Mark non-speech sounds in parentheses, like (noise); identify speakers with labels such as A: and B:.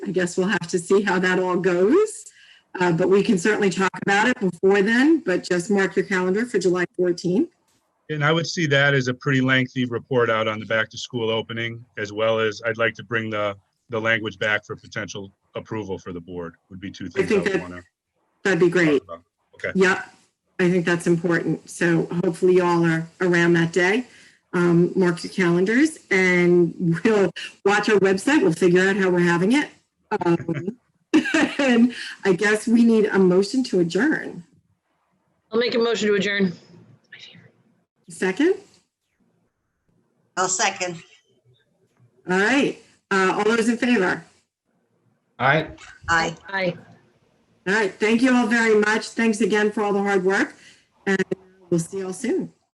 A: I guess we'll have to see how that all goes. Uh, but we can certainly talk about it before then, but just mark your calendar for July 14th.
B: And I would see that as a pretty lengthy report out on the back to school opening, as well as I'd like to bring the, the language back for potential approval for the board would be two things I
A: think
B: would
A: that-
B: want to
A: That'd be great.
B: talk about.
A: Yep. I think that's important. So hopefully y'all are around that day. Um, mark your calendars and (laughs) we'll watch our website. We'll figure out how we're having it. Um, (laughs) and I guess we need a motion to adjourn.
C: I'll make a motion to adjourn.
A: Second?
D: I'll second.
A: All right. Uh, all those in favor?
E: All right,
D: Aye.
C: Aye.
A: All right. Thank you all very much. Thanks again for all the hard work. And we'll see y'all soon.